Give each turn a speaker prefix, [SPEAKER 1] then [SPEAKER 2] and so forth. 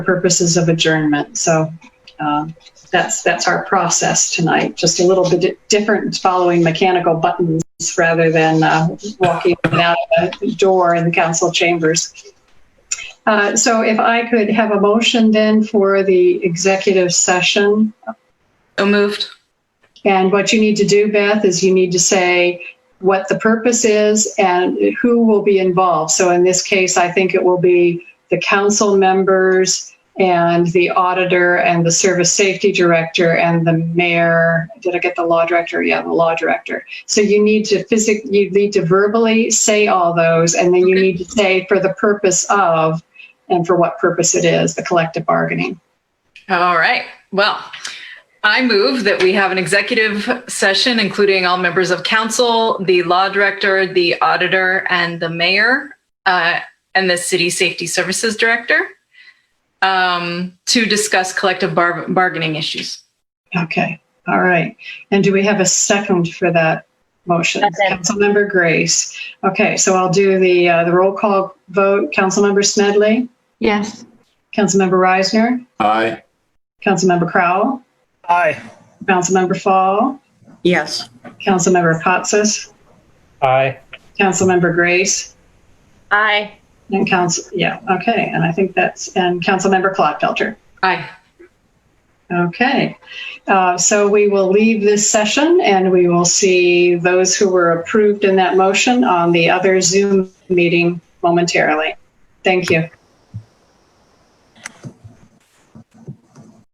[SPEAKER 1] purposes of adjournment. So um, that's, that's our process tonight, just a little bit di- different, following mechanical buttons rather than uh, walking in and out of a door in the council chambers. Uh, So if I could have a motion then for the executive session.
[SPEAKER 2] So moved.
[SPEAKER 1] And what you need to do, Beth, is you need to say what the purpose is and who will be involved. So in this case, I think it will be the council members and the auditor and the service safety director and the mayor. Did I get the law director? Yeah, the law director. So you need to physic, you need to verbally say all those, and then you
[SPEAKER 2] Okay.
[SPEAKER 1] need to say for the purpose of and for what purpose it is, the collective bargaining.
[SPEAKER 2] All right. Well, I move that we have an executive session, including all members of council, the law director, the auditor, and the mayor, uh, and the city safety services director um, to discuss collective bar- bargaining issues.
[SPEAKER 1] Okay, all right. And do we have a second for that motion?
[SPEAKER 3] Second.
[SPEAKER 1] Councilmember Grace. Okay, so I'll do the, uh, the roll call vote. Councilmember Smedley,
[SPEAKER 3] Yes.
[SPEAKER 1] Councilmember Reisner,
[SPEAKER 4] Aye.
[SPEAKER 1] Councilmember Crowell,
[SPEAKER 5] Aye.
[SPEAKER 1] Councilmember Fall,
[SPEAKER 3] Yes.
[SPEAKER 1] Councilmember Katsas,
[SPEAKER 5] Aye.
[SPEAKER 1] Councilmember Grace,
[SPEAKER 3] Aye.
[SPEAKER 1] and council, yeah, okay. And I think that's, and Councilmember Clodfelter.
[SPEAKER 2] Aye.
[SPEAKER 1] Okay, uh, so we will leave this session and we will see those who were approved in that motion on the other Zoom meeting momentarily. Thank you.